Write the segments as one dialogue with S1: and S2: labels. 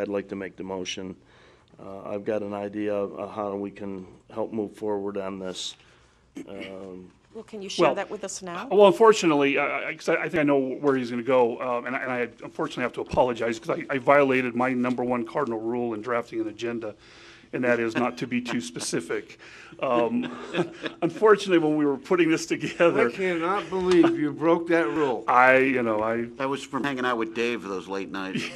S1: I'd like to make the motion. Uh, I've got an idea of how we can help move forward on this.
S2: Well, can you
S3: Well,
S2: share that with us now?
S3: Well, unfortunately, I, I, 'cause I I think I know where he's going to go, um, and I, and I unfortunately have to apologize because I, I violated my number one cardinal rule in drafting an agenda, and that is not to be too specific. Um, unfortunately, when we were putting this
S4: I
S3: together,
S4: cannot believe you broke that rule.
S3: I, you know, I,
S5: That was from hanging out with Dave those late nights.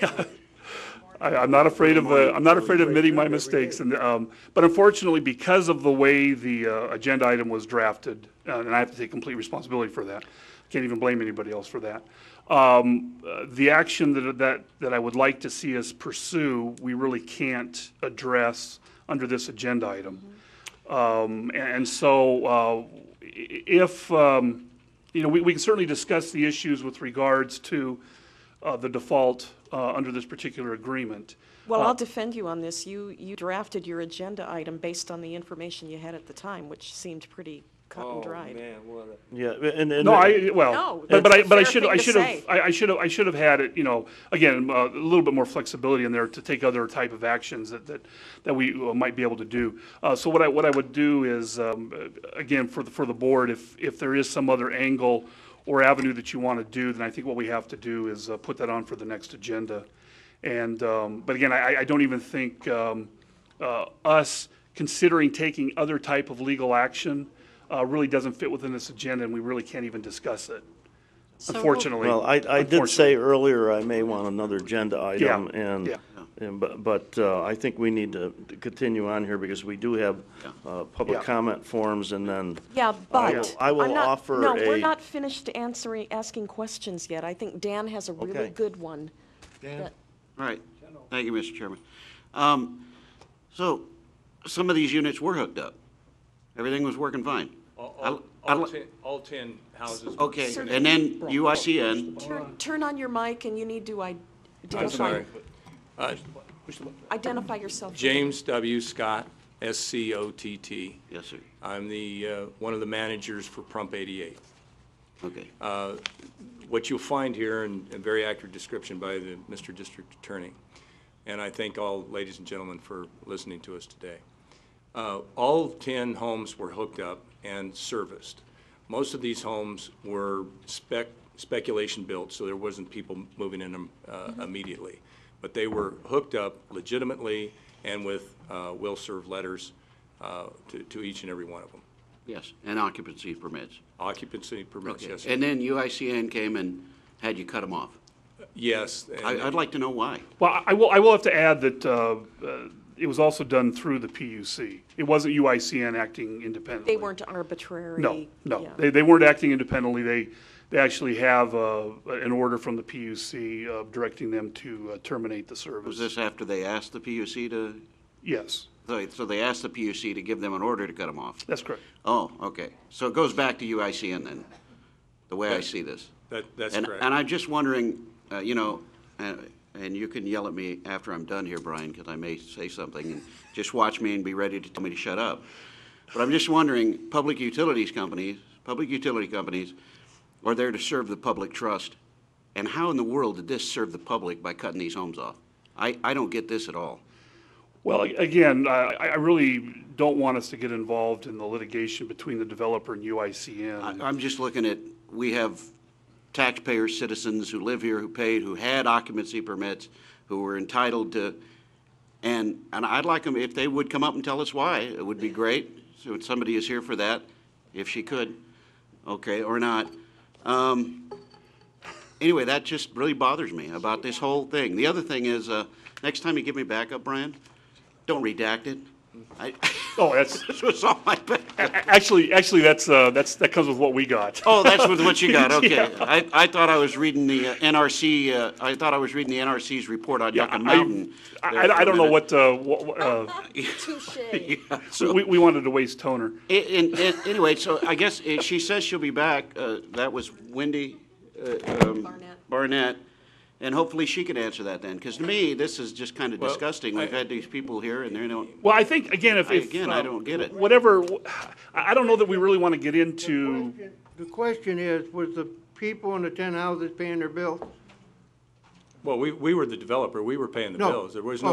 S3: I, I'm not afraid of, uh, I'm not afraid of admitting my mistakes, and, um, but unfortunately, because of the way the, uh, agenda item was drafted, uh, and I have to take complete responsibility for that, can't even blame anybody else for that. Um, uh, the action that, that, that I would like to see us pursue, we really can't address under this agenda item. Um, and so, uh, i- if, um, you know, we, we can certainly discuss the issues with regards to, uh, the default, uh, under this particular agreement.
S2: Well,
S3: uh,
S2: I'll defend you on this. You, you drafted your agenda item based on the information you had at the time, which seemed pretty cut
S1: Oh,
S2: and dried.
S1: Yeah, and, and.
S3: No, I, well,
S2: No,
S3: but but I,
S2: that's a
S3: but I
S2: fair
S3: should, I
S2: thing to
S3: should have,
S2: say.
S3: I, I should have, I should have had it, you know, again, uh, a little bit more flexibility in there to take other type of actions that, that, that we uh, might be able to do. Uh, so what I, what I would do is, um, uh, again, for the, for the board, if, if there is some other angle or avenue that you want to do, then I think what we have to do is, uh, put that on for the next agenda. And, um, but again, I, I don't even think, um, uh, us considering taking other type of legal action, uh, really doesn't fit within this agenda and we really can't even discuss it. Unfortunately.
S1: Well, I, I did say earlier I may want another agenda item,
S3: Yeah,
S1: and,
S3: yeah.
S1: and, but, but uh, I think we need to continue on here, because we do have uh, public
S3: Yeah.
S1: comment forms, and then.
S2: Yeah,
S1: I
S2: but.
S1: will- I will
S2: I'm not-
S1: offer
S2: No, we're
S1: a-
S2: not finished answering, asking questions yet. I think Dan has a really
S1: Okay.
S2: good one. that-
S5: All right. Thank you, Mr. Chairman. Um, So some of these units were hooked up. Everything was working fine.
S6: All-
S5: I-
S6: All,
S5: I
S6: all
S5: li-
S6: ten, all ten houses. were-
S5: Okay, and then UICN,
S2: Turn, turn on your mic and you need to i- identify,
S6: Uh,
S2: identify yourself.
S6: James W. Scott, S-C-O-T-T.
S5: yes, sir,
S6: I'm the, uh, one of the managers for Prump 88.
S5: okay.
S6: Uh, What you'll find here, in a very accurate description by the Mr. District Attorney, and I thank all ladies and gentlemen for listening to us today. Uh, All 10 homes were hooked up and serviced. Most of these homes were spec, speculation built, so there wasn't people moving in them uh,
S5: Mm-hmm.
S6: immediately. But they were hooked up legitimately and with uh, will-serve letters uh, to, to each and every one of them.
S5: Yes, and occupancy permits.
S6: Occupancy permits, yes.
S5: And then UICN came and had you cut them off.
S6: Yes. and-
S5: I- I'd like to know why.
S3: Well, I- I will, I will have to add that uh, uh, it was also done through the PUC. It wasn't UICN acting independently.
S2: They weren't arbitrary.
S3: No, no,
S2: yeah.
S3: they, they weren't acting independently. They, they actually have uh, an order from the PUC uh, directing them to uh, terminate the
S5: Was
S3: service.
S5: this after they asked the PUC to,
S3: Yes,
S5: so- so they asked the PUC to give them an order to cut them off?
S3: that's correct.
S5: Oh, okay. So it goes back to UICN then, the way I see this.
S6: That- that's
S5: And-
S6: correct.
S5: And I'm just wondering, uh, you know, and and you can yell at me after I'm done here, Brian, because I may say something, and just watch me and be ready to tell me to shut up. But I'm just wondering, public utilities companies, public utility companies are there to serve the public trust, and how in the world did this serve the public by cutting these homes off? I, I don't get this at all.
S3: Well, a- again, I, I really don't want us to get involved in the litigation between the developer and
S5: I-
S3: UICN.
S5: I'm just looking at, we have taxpayers, citizens who live here, who paid, who had occupancy permits, who were entitled to, and, and I'd like them, if they would come up and tell us why, it would be great. So if somebody is here for that, if she could, okay, or not. Um, Anyway, that just really bothers me about this whole thing. The other thing is, uh, next time you give me backup, Brian, don't redact it. I,
S3: Oh, that's,
S5: this was all my bad.
S3: a- actually, actually, that's, uh, that's, that comes with what we got.
S5: Oh, that's what what you got, okay. I, I thought I was reading the uh, NRC, uh, I thought I was reading the NRC's report on
S3: I-
S5: Yucca Mountain.
S3: I,
S5: there
S3: I- I
S5: for a
S3: don't know
S5: minute.
S3: what, uh, what, what, uh,
S2: Touche.
S5: So-
S3: we, we wanted to waste toner.
S5: A- And, and, anyway, so I guess uh, she says she'll be back, uh, that was Wendy uh, um,
S2: Barnett.
S5: Barnett, and hopefully she could answer that then, because to me, this is just kind of
S6: Well,
S5: disgusting. We've
S6: I-
S5: had these people here and they don't,
S3: Well, I think, again, if,
S5: I-
S3: if.
S5: again, I
S3: um,
S5: don't get it.
S3: Whatever, I, I don't know that we really want to get into,
S4: The question is, was the people in the ten houses paying their bills?
S6: Well, we, we were the developer, we were paying the
S4: No.
S6: bills, there was
S4: Oh,
S6: no